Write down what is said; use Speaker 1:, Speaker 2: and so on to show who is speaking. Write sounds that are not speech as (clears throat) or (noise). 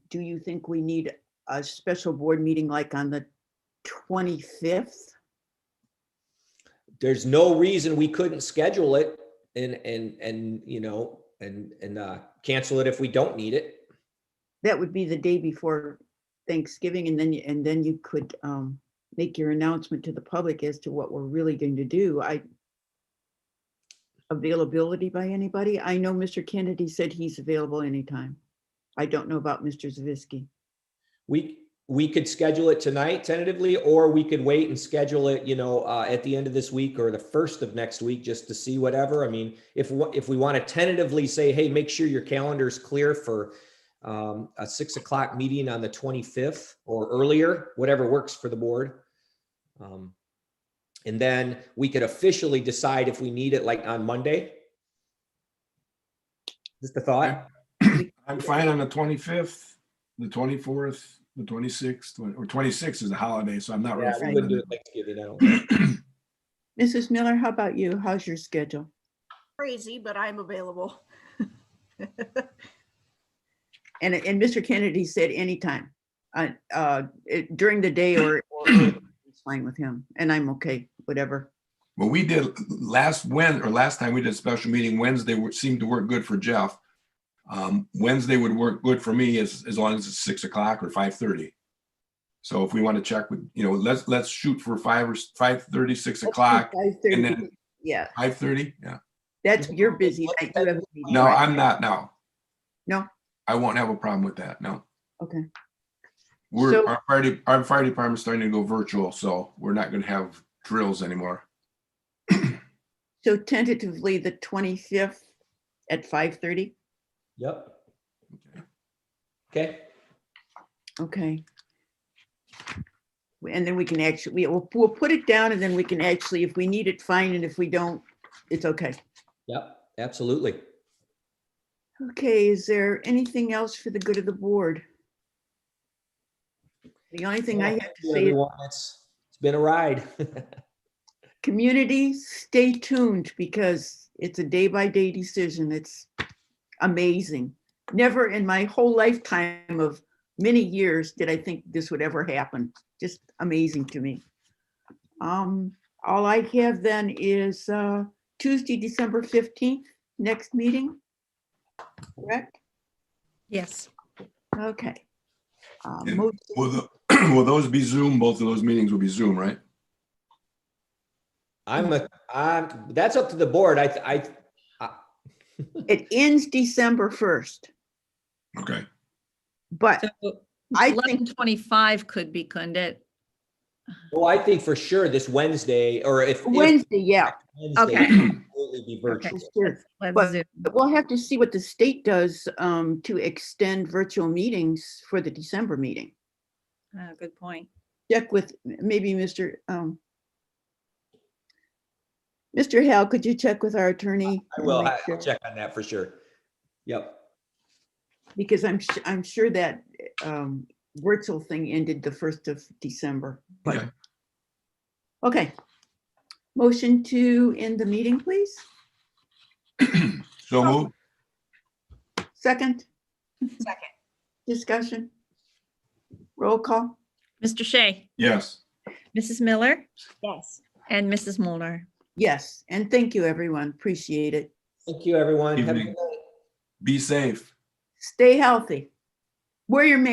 Speaker 1: do you think we need a special board meeting like on the 25th?
Speaker 2: there's no reason we couldn't schedule it and, and, and, you know, and, and, uh, cancel it if we don't need it.
Speaker 1: That would be the day before Thanksgiving and then, you- and then you could um, make your announcement to the public as to what we're really going to do. I availability by anybody? I know Mr. Kennedy said he's available anytime. I don't know about Mr. Zavisky.
Speaker 2: We, we could schedule it tonight tentatively, or we could wait and schedule it, you know, uh, at the end of this week or the first of next week, just to see whatever. I mean, if, wa- if we want to tentatively say, hey, make sure your calendar's clear for, um, a six o'clock meeting on the twenty-fifth or earlier, whatever works for the board. Um, And then we could officially decide if we need it like on Monday. Just a thought.
Speaker 3: I'm fine on the twenty-fifth, the twenty-fourth, the twenty-sixth, or twenty-sixth is a holiday, so I'm not
Speaker 2: Yeah,
Speaker 3: really.
Speaker 2: we
Speaker 3: fine
Speaker 2: wouldn't
Speaker 3: on
Speaker 2: do
Speaker 3: it.
Speaker 2: it Thanksgiving, I don't think.
Speaker 1: Mrs. Miller, how about you? How's your schedule?
Speaker 4: crazy, but I'm available.
Speaker 1: And, and Mr. Kennedy said anytime, uh, uh, it- during the day or,
Speaker 3: (clears throat)
Speaker 1: or- or it's fine with him, and I'm okay, whatever.
Speaker 3: Well, we did last Wed, or last time we did a special meeting, Wednesday would- seemed to work good for Jeff. Um, Wednesday would work good for me as, as long as it's six o'clock or five thirty. So if we want to check with, you know, let's, let's shoot for five or s- five thirty, six o'clock, and
Speaker 1: 5:30.
Speaker 3: then-
Speaker 1: Yeah,
Speaker 3: five thirty, yeah.
Speaker 1: that's, you're busy. night, you have a meeting,
Speaker 3: No,
Speaker 1: right?
Speaker 3: I'm not now.
Speaker 1: No?
Speaker 3: I won't have a problem with that, no.
Speaker 1: Okay.
Speaker 3: We're,
Speaker 1: So-
Speaker 3: our fire, de- our fire department's starting to go virtual, so we're not gonna have drills anymore.
Speaker 1: So tentatively, the 25th at 5:30,
Speaker 2: Yep. Okay,
Speaker 1: okay. And then we can actually, we'll, we'll put it down and then we can actually, if we need it, fine, and if we don't, it's okay.
Speaker 2: yep, absolutely.
Speaker 1: Okay, is there anything else for the good of the board? The only thing I
Speaker 2: Well,
Speaker 1: have
Speaker 2: thank
Speaker 1: to
Speaker 2: you,
Speaker 1: say is,
Speaker 2: everyone. It's it's been a ride. (laughs)
Speaker 1: community, stay tuned because it's a day-by-day decision. It's amazing. Never in my whole lifetime of many years did I think this would ever happen. Just amazing to me. Um, all I have then is, uh, Tuesday, December fifteenth, next meeting. Correct?
Speaker 5: Yes,
Speaker 1: Okay. Uh,
Speaker 3: Yeah.
Speaker 1: mo-
Speaker 3: Will, (clears throat) the- will those be Zoom? Both of those meetings will be Zoom, right?
Speaker 2: I'm a, I'm, that's up to the board. I, I,
Speaker 1: It ends December first,
Speaker 3: Okay.
Speaker 1: but
Speaker 5: so
Speaker 1: I
Speaker 5: eleven twenty-five could be, couldn't it?
Speaker 2: well, oh, I think for sure this Wednesday, or if. if
Speaker 1: Wednesday, yeah,
Speaker 2: Wednesday,
Speaker 5: Okay.
Speaker 2: it'll Absolutely be virtual.
Speaker 1: sure.
Speaker 5: Let's
Speaker 1: But-
Speaker 5: zoom.
Speaker 1: But We'll have to see what the state does um, to extend virtual meetings for the December meeting.
Speaker 5: Ah, Good point.
Speaker 1: Check with, maybe Mr. um, Mr. Hal, could you check with our attorney?
Speaker 2: I
Speaker 1: and
Speaker 2: will,
Speaker 1: make
Speaker 2: I- I'll
Speaker 1: sure?
Speaker 2: check on that for sure. Yep,
Speaker 1: Because I'm, su- I'm sure that um, virtual thing ended the first of December.
Speaker 3: Okay.
Speaker 1: Okay. Motion to end the meeting, please.
Speaker 3: So move.
Speaker 1: Second
Speaker 4: Second.
Speaker 1: discussion. Roll call.
Speaker 5: Mr. Shea,
Speaker 3: Yes.
Speaker 5: Mrs. Miller,
Speaker 4: Yes.
Speaker 5: and Mrs. Molnar.
Speaker 1: Yes, and thank you, everyone. Appreciate it.
Speaker 2: thank you, everyone. Have a
Speaker 3: Evening.
Speaker 2: good night.
Speaker 3: Be safe.
Speaker 1: Stay healthy. Wear your mask.